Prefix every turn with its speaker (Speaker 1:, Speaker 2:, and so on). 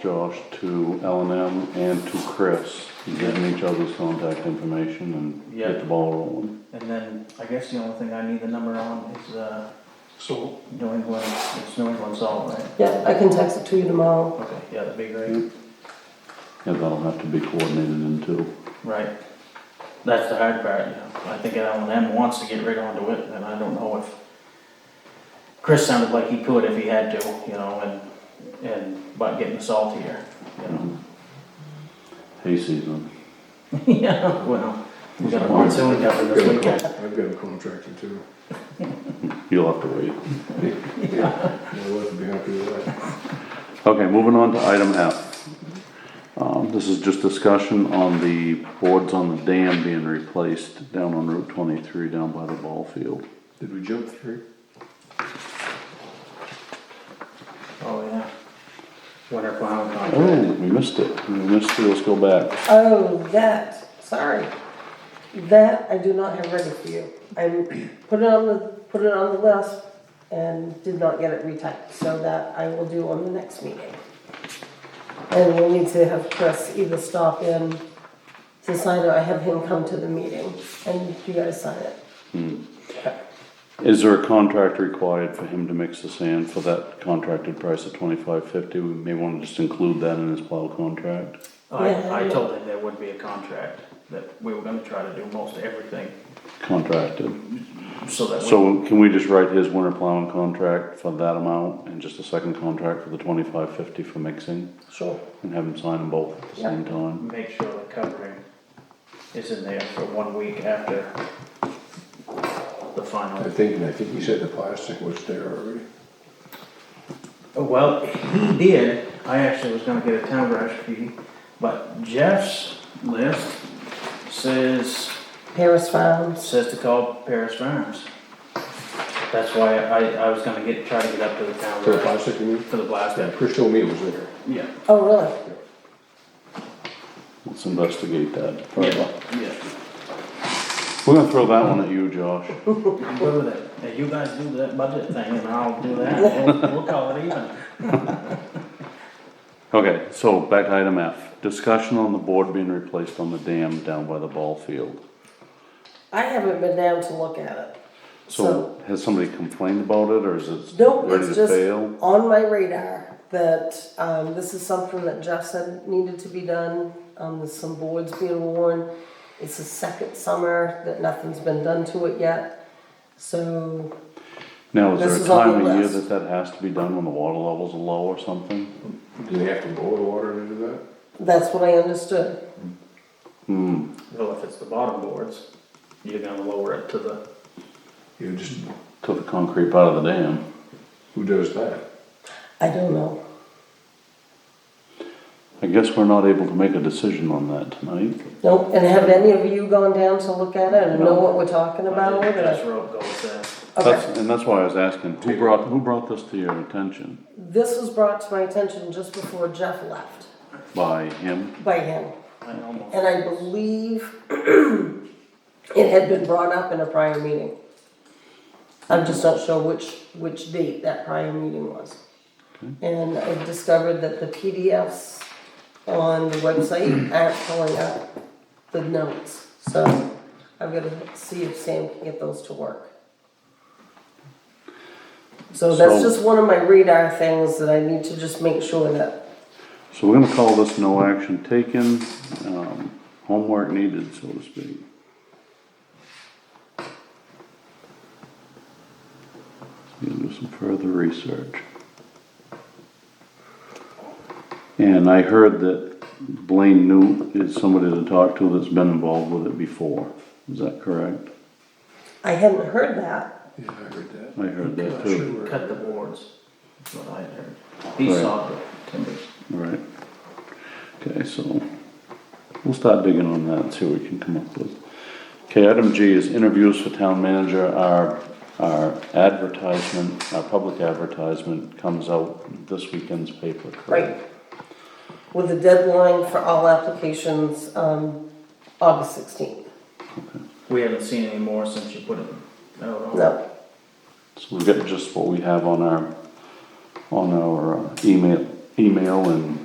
Speaker 1: Josh to L and M and to Chris, give them each other's contact information and
Speaker 2: Yeah.
Speaker 1: get the ball rolling.
Speaker 2: And then, I guess the only thing I need the number on is, uh,
Speaker 3: So,
Speaker 2: New England, it's New England Salt, right?
Speaker 4: Yeah, I can text it to you tomorrow.
Speaker 2: Okay, yeah, that'd be great,
Speaker 1: Yeah, that'll have to be coordinated into,
Speaker 2: right. That's the hard part, you know, I think L and M wants to get right onto it, and I don't know if, Chris sounded like he could if he had to, you know, and, and, but getting the salt here, you know.
Speaker 1: hay season.
Speaker 2: Yeah, well, we got a monsoon coming this weekend.
Speaker 3: I've got a contractor too.
Speaker 1: You'll have to wait.
Speaker 3: My wife would be happy with that.
Speaker 1: Okay, moving on to item F. Um, this is just discussion on the boards on the dam being replaced down on Route twenty-three, down by the ball field.
Speaker 3: Did we jump through?
Speaker 2: Oh, yeah. Winter plowing
Speaker 1: Oh,
Speaker 2: contract.
Speaker 1: we missed it. We missed it. Let's go back.
Speaker 4: Oh, that, sorry. That I do not have ready for you. I put it on the, put it on the list and did not get it retyped, so that I will do on the next meeting. And we'll need to have Chris either stop in to sign or I have him come to the meeting and you guys sign it.
Speaker 1: Is there a contract required for him to mix the sand for that contracted price of twenty-five fifty? We may wanna just include that in his plow contract.
Speaker 4: Yeah,
Speaker 2: I, I
Speaker 4: yeah.
Speaker 2: told him there would be a contract, that we were gonna try to do most everything,
Speaker 1: Contracted.
Speaker 2: so that we,
Speaker 1: So can we just write his winter plowing contract for that amount and just a second contract for the twenty-five fifty for mixing?
Speaker 4: Sure.
Speaker 1: And have him sign them both at the same time?
Speaker 2: make sure the covering is in there for one week after the
Speaker 3: I
Speaker 2: final.
Speaker 3: think, and I think he said the plastic was there already.
Speaker 2: Oh, Well, he did, I actually was gonna get a town brush fee, but Jeff's list says
Speaker 4: Paris Farms.
Speaker 2: says to call Paris Farms. That's why I, I was gonna get, try to get up to the town.
Speaker 3: For the plastic, you mean?
Speaker 2: For the blast,
Speaker 3: Yeah,
Speaker 2: yeah.
Speaker 3: Chris told me it was there.
Speaker 2: Yeah,
Speaker 4: Oh, really?
Speaker 1: Let's investigate that further.
Speaker 2: yeah.
Speaker 1: We're gonna throw that one at you, Josh.
Speaker 2: I'm good with it. Now, you guys do that budget thing and I'll do that. We'll, we'll call it even.
Speaker 1: Okay, so back to item F, discussion on the board being replaced on the dam down by the ball field.
Speaker 4: I haven't been down to look at it.
Speaker 1: So has somebody complained about it or is it
Speaker 4: Nope,
Speaker 1: ready
Speaker 4: it's
Speaker 1: to
Speaker 4: just
Speaker 1: fail?
Speaker 4: on my radar that um, this is something that Jeff said needed to be done. Um, there's some boards being worn. It's the second summer that nothing's been done to it yet. So
Speaker 1: Now, is
Speaker 4: This
Speaker 1: there a
Speaker 4: is on the
Speaker 1: time of year
Speaker 4: list.
Speaker 1: that that has to be done when the water levels are low or something?
Speaker 3: Do they have to boil the water into that?
Speaker 4: that's what I understood.
Speaker 1: Hmm,
Speaker 2: Well, if it's the bottom boards, you're gonna lower it to the,
Speaker 3: You just,
Speaker 1: to the concrete part of the dam.
Speaker 3: who does that?
Speaker 4: I don't know.
Speaker 1: I guess we're not able to make a decision on that tonight.
Speaker 4: Nope. And have any of you gone down to look at it and know what we're talking about?
Speaker 2: I think that's
Speaker 4: Okay.
Speaker 2: where it goes there.
Speaker 1: That's, and that's why I was asking, who brought, who brought this to your attention?
Speaker 4: This was brought to my attention just before Jeff left
Speaker 1: By him?
Speaker 4: by him.
Speaker 2: I almost,
Speaker 4: And I believe it had been brought up in a prior meeting. I'm just not sure which, which date that prior meeting was. And I discovered that the PDFs on the website aren't pulling up the notes. So I've got to see if Sam can get those to work. So
Speaker 1: So-
Speaker 4: that's just one of my radar things that I need to just make sure that,
Speaker 1: So we're gonna call this no action taken, um, homework needed, so to speak. Gonna do some further research. And I heard that Blaine New is somebody to talk to that's been involved with it before, is that correct?
Speaker 4: I hadn't heard that.
Speaker 3: Yeah, I heard that.
Speaker 1: I heard that
Speaker 3: Not sure
Speaker 1: too,
Speaker 3: where-
Speaker 2: cut the boards, is what I had heard. He
Speaker 1: Right.
Speaker 2: saw the timbers.
Speaker 1: right? Okay, so we'll start digging on that and see what we can come up with. Okay, item G is interviews for town manager. Our, our advertisement, our public advertisement comes out this weekend's paper,
Speaker 4: Right.
Speaker 1: correct?
Speaker 4: With a deadline for all applications, um, August sixteenth.
Speaker 2: We haven't seen any more since you put it out on.
Speaker 4: No,
Speaker 1: So we get just what we have on our, on our uh, email, email and